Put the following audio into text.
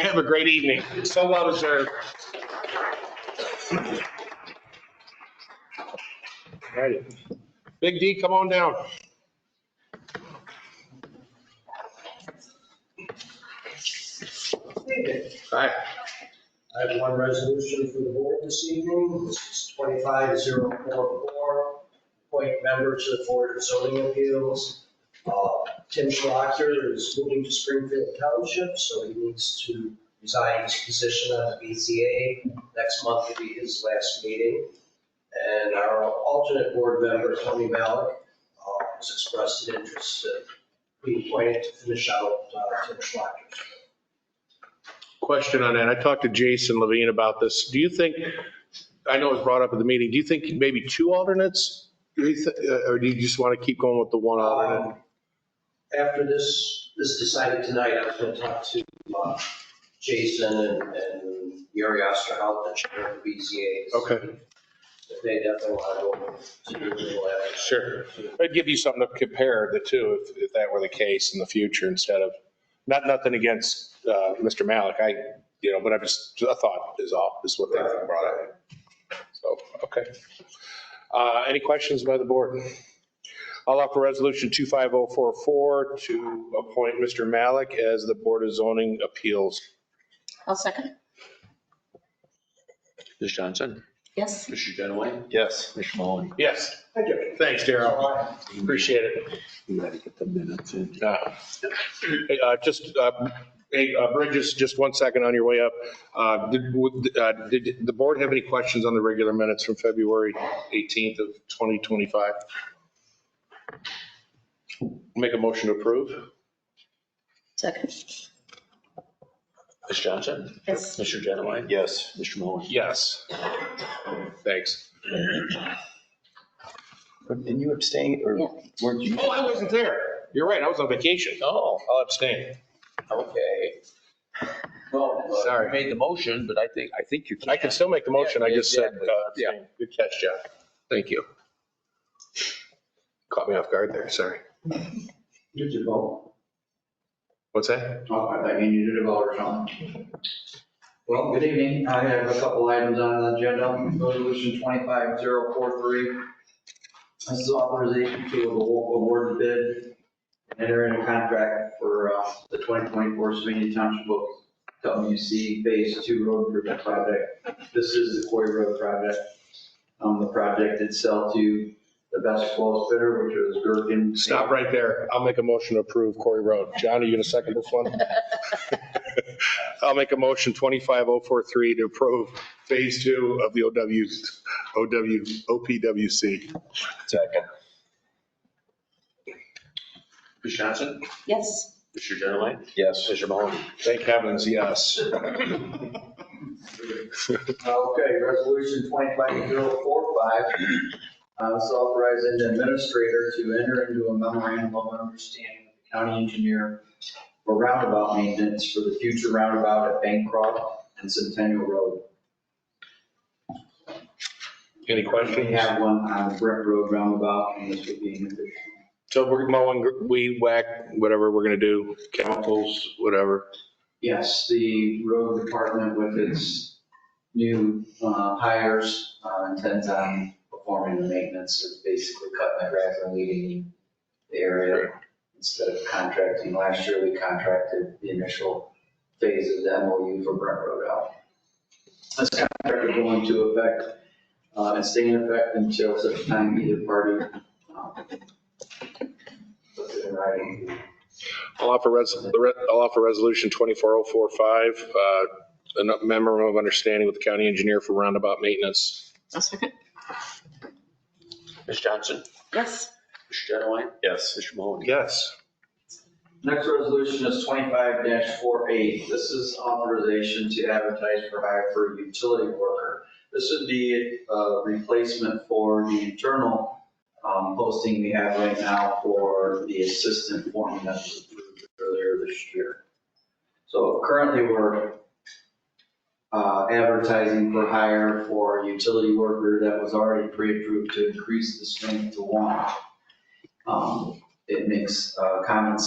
Have a great evening. So well deserved. All righty. Big D, come on down. Hi. I have one resolution for the board this evening. This is 25044, appoint member to the Board of Zoning Appeals. Uh, Tim Schlachter is moving to Springfield Township, so he needs to resign his position on the BZA. Next month will be his last meeting. And our alternate board member, Tony Malik, uh, has expressed an interest in being appointed to finish out uh, Tim Schlachter's Question on that. I talked to Jason Levine about this. Do you think, I know it was brought up at the meeting, do you think maybe two alternates? Do you thi- uh, Or do you just want to keep going with the one alternate? Um, After this is decided tonight, I was going to talk to uh, Jason and and Yuri Osterhout, the chair of the BZA. Okay. If They definitely want to go to the lab. Sure. It'd give you something to compare the two if, if that were the case in the future instead of, not, nothing against uh, Mr. Malik. I, you know, but I just, a thought is off, is what they brought up. So, okay. Uh, Any questions by the board? I'll offer resolution 25044 to appoint Mr. Malik as the Board of Zoning Appeals. I'll second. Ms. Johnson? Yes. Mr. Dunaway? Yes. Mr. Mahoney? Yes. Thank you. Thanks, Darrell. Appreciate it. You gotta get the minutes in. Uh, hey, uh, Just, uh, hey, uh, Bridges, just one second on your way up. Uh, Did would, uh, did the board have any questions on the regular minutes from February 18th of 2025? Make a motion to approve? Second. Ms. Johnson? Yes. Mr. Dunaway? Yes. Mr. Mahoney? Yes. Thanks. Didn't you abstain or Yeah. weren't you? Oh, I wasn't there. You're right, I was on vacation. Oh, I'll abstain. okay. Well, uh, Sorry. you Made the motion, but I think, I think you can. I can still make the motion, I just said Exactly. uh, abstain. Good catch, Jeff. Thank you. Caught me off guard there, sorry. You did vote. What's that? Oh, I thought you needed to vote or something. Well, good evening. I have a couple items on the agenda. Resolution 25043. This is authorization to award the bid and enter into contract for uh, the 2024 Savannah Township Book WC Phase 2 Road Improvement Project. This is the Quarry Road project. Um, The project did sell to the best close bidder, which was Gerken. Stop right there. I'll make a motion to approve Corey Road. John, are you going to second this one? I'll make a motion 25043 to approve Phase 2 of the OW, OW, OPWC. Second. Ms. Johnson? Yes. Mr. Dunaway? Yes. Mr. Mahoney? Thank heavens, yes. Okay, resolution 25045, uh, is authorizing the administrator to enter into a memorandum of understanding with the county engineer for roundabout maintenance for the future roundabout at Bancroft and Centennial Road. Any We questions? have one on Brick Road roundabout, and this would be an addition. So we're mowing, weed whack, whatever we're going to do, chemicals, whatever. Yes, the road department with its new uh, hires uh, intends on performing the maintenance of basically cutting the grass and weeding the area. Instead of contracting, last year we contracted the initial phase of the MOU for Brent Road out. This contract is going to affect, uh, and stay in effect until such time either party um, puts it in writing. I'll offer, res- the re- I'll offer resolution 24045, uh, a memorandum of understanding with the county engineer for roundabout maintenance. I'll second. Ms. Johnson? Yes. Mr. Dunaway? Yes. Mr. Mahoney? Yes. Next resolution is twenty-five 48 This is authorization to advertise for hire for a utility worker. This would be a replacement for the internal um, posting we have right now for the assistant foreman that was approved earlier this year. So currently, we're uh, advertising for hire for a utility worker that was already pre-approved to increase the strength to one. Um, It makes uh, common sense